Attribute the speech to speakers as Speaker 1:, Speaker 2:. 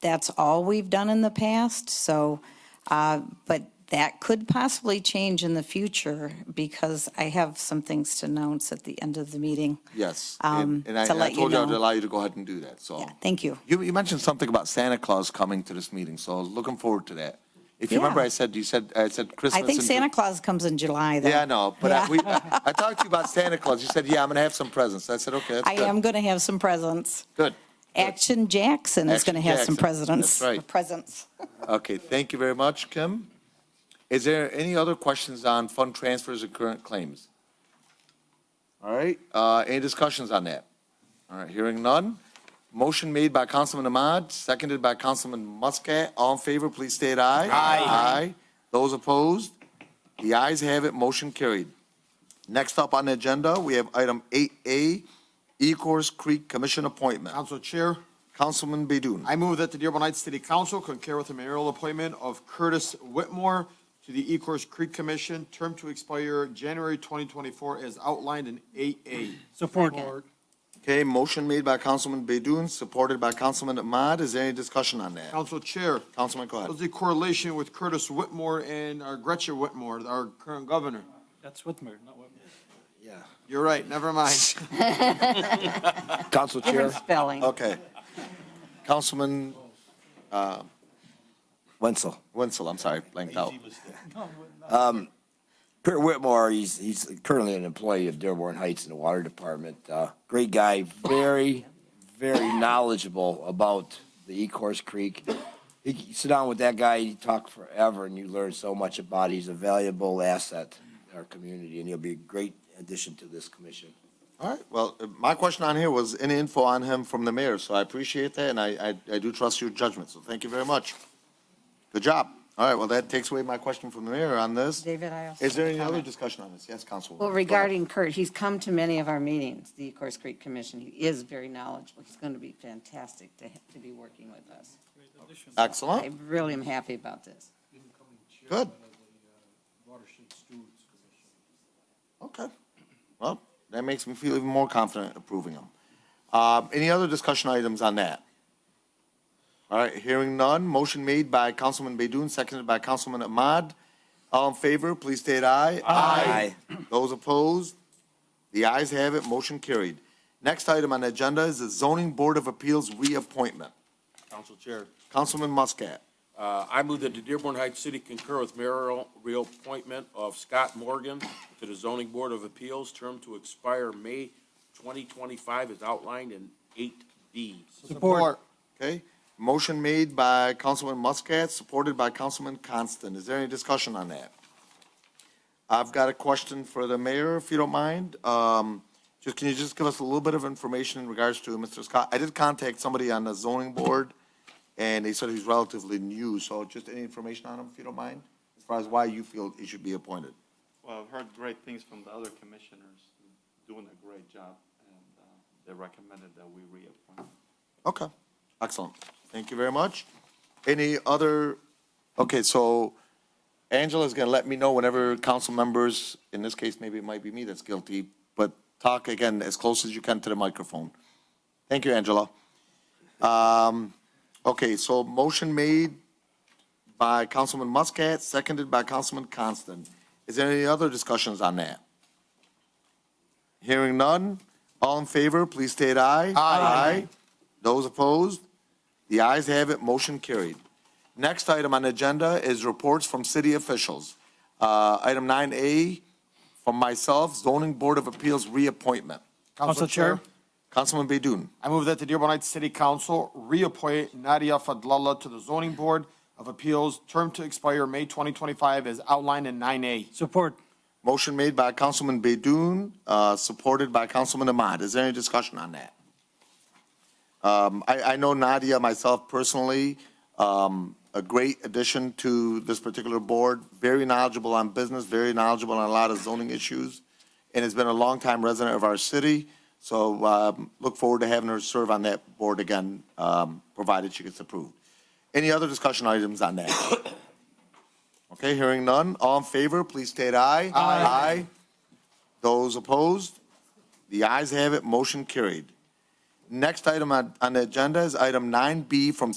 Speaker 1: that's all we've done in the past, so, uh, but that could possibly change in the future because I have some things to announce at the end of the meeting.
Speaker 2: Yes,
Speaker 1: um,
Speaker 2: and and I
Speaker 1: to
Speaker 2: and I
Speaker 1: let you
Speaker 2: told you I'd
Speaker 1: know.
Speaker 2: allow you to go ahead and do that, so.
Speaker 1: Yeah, thank you.
Speaker 2: You, you mentioned something about Santa Claus coming to this meeting, so I was looking forward to that. If you
Speaker 1: Yeah.
Speaker 2: remember, I said, you said, I said Christmas.
Speaker 1: I think
Speaker 2: in
Speaker 1: Santa
Speaker 2: Ju-
Speaker 1: Claus comes in July, though.
Speaker 2: Yeah, I know, but I,
Speaker 1: Yeah.
Speaker 2: we, I talked to you about Santa Claus. You said, yeah, I'm gonna have some presents. I said, okay, that's
Speaker 1: I
Speaker 2: good.
Speaker 1: am going to have some presents.
Speaker 2: Good.
Speaker 1: Action Jackson is
Speaker 2: Action
Speaker 1: going to have some
Speaker 2: Jackson,
Speaker 1: presidents.
Speaker 2: that's right.
Speaker 1: Presents.
Speaker 2: Okay, thank you very much, Kim. Is there any other questions on fund transfers and current claims? All right, uh, any discussions on that? All right, hearing none. Motion made by Councilman Ahmad, seconded by Councilman Muscat. All in favor, please state aye. Aye. Aye. Those opposed? The ayes have it, motion carried. Next up on the agenda, we have item 8A, Ecorse Creek Commission Appointment.
Speaker 3: Council Chair,
Speaker 2: Councilman Bedun.
Speaker 3: I move that the Dearborn Heights City Council concur with the mayoral appointment of Curtis Whitmore to the Ecorse Creek Commission, term to expire January 2024 as outlined in 8A.
Speaker 4: Support.
Speaker 2: Okay, motion made by Councilman Bedun, supported by Councilman Ahmad. Is there any discussion on that?
Speaker 3: Council Chair,
Speaker 2: Councilman, go ahead.
Speaker 3: what's the correlation with Curtis Whitmore and our Gretchen Whitmore, our current governor?
Speaker 4: That's Whitmer, not Whitmer.
Speaker 3: You're right, never mind.
Speaker 5: Council Chair,
Speaker 1: Different spelling.
Speaker 2: Okay. Councilman
Speaker 5: Wenzel.
Speaker 2: Wenzel, I'm sorry, blanked out.
Speaker 5: Kurt Whitmore, he's, he's currently an employee of Dearborn Heights in the Water Department. Uh, Great guy, very, very knowledgeable about the Ecorse Creek. He- You sit down with that guy, you talk forever, and you learn so much about, it. he's a valuable asset in our community, and he'll be a great addition to this commission.
Speaker 2: All right, well, uh, my question on here was any info on him from the mayor, so I appreciate that, and I, I- I do trust your judgment, so thank you very much. Good job. All right, well, that takes away my question from the mayor on this.
Speaker 6: David, I also.
Speaker 2: Is there any
Speaker 6: have a
Speaker 2: other
Speaker 6: comment.
Speaker 2: discussion on this? Yes, Councilwoman.
Speaker 6: Well, regarding Kurt, he's come to many of our meetings, the Course Creek Commission. He is very knowledgeable. He's going to be fantastic to, ha- to be working with us. I
Speaker 2: Excellent,
Speaker 6: really am happy about this.
Speaker 2: good. Okay. Well, that makes me feel even more confident approving them. Um, Any other discussion items on that? All right, hearing none. Motion made by Councilman Bedun, seconded by Councilman Ahmad. All in favor, please state aye.
Speaker 5: Aye.
Speaker 2: Those opposed? The ayes have it, motion carried. Next item on the agenda is the Zoning Board of Appeals reappointment.
Speaker 7: Council Chair,
Speaker 2: Councilman Muscat.
Speaker 7: uh, I move that the Dearborn Heights City concur with mayoral reappointment of Scott Morgan to the Zoning Board of Appeals, term to expire May 2025 as outlined in 8B.
Speaker 4: Support.
Speaker 2: Okay, motion made by Councilman Muscat, supported by Councilman Constant. Is there any discussion on that? I've got a question for the mayor, if you don't mind. Um, just, can you just give us a little bit of information in regards to Mr. Scott? I did contact somebody on the zoning board, and they said he's relatively new, so just any information on him, if you don't mind? As far as why you feel he should be appointed?
Speaker 8: Well, I've heard great things from the other commissioners doing a great job, and uh, they recommended that we reappoint.
Speaker 2: Okay, excellent. Thank you very much. Any other, okay, so Angela's gonna let me know whenever council members, in this case, maybe it might be me that's guilty, but talk again as close as you can to the microphone. Thank you, Angela. Um, okay, so motion made by Councilman Muscat, seconded by Councilman Constant. Is there any other discussions on that? Hearing none, all in favor, please state aye. Aye. Those opposed? The ayes have it, motion carried. Next item on the agenda is reports from city officials. Uh, Item 9A, from myself, Zoning Board of Appeals reappointment.
Speaker 4: Council Chair.
Speaker 2: Councilman Bedun.
Speaker 3: I move that the Dearborn Heights City Council reappoint Nadia Fadlallah to the Zoning Board of Appeals, term to expire May 2025 as outlined in 9A.
Speaker 4: Support.
Speaker 2: Motion made by Councilman Bedun, uh, supported by Councilman Ahmad. Is there any discussion on that? Um, I, I know Nadia, myself personally, um, a great addition to this particular board, very knowledgeable on business, very knowledgeable on a lot of zoning issues, and has been a longtime resident of our city. So um, look forward to having her serve on that board again, um, provided she gets approved. Any other discussion items on that? Okay, hearing none. All in favor, please state aye. Aye. Aye. Those opposed? The ayes have it, motion carried. Next item on, on the agenda is item 9B from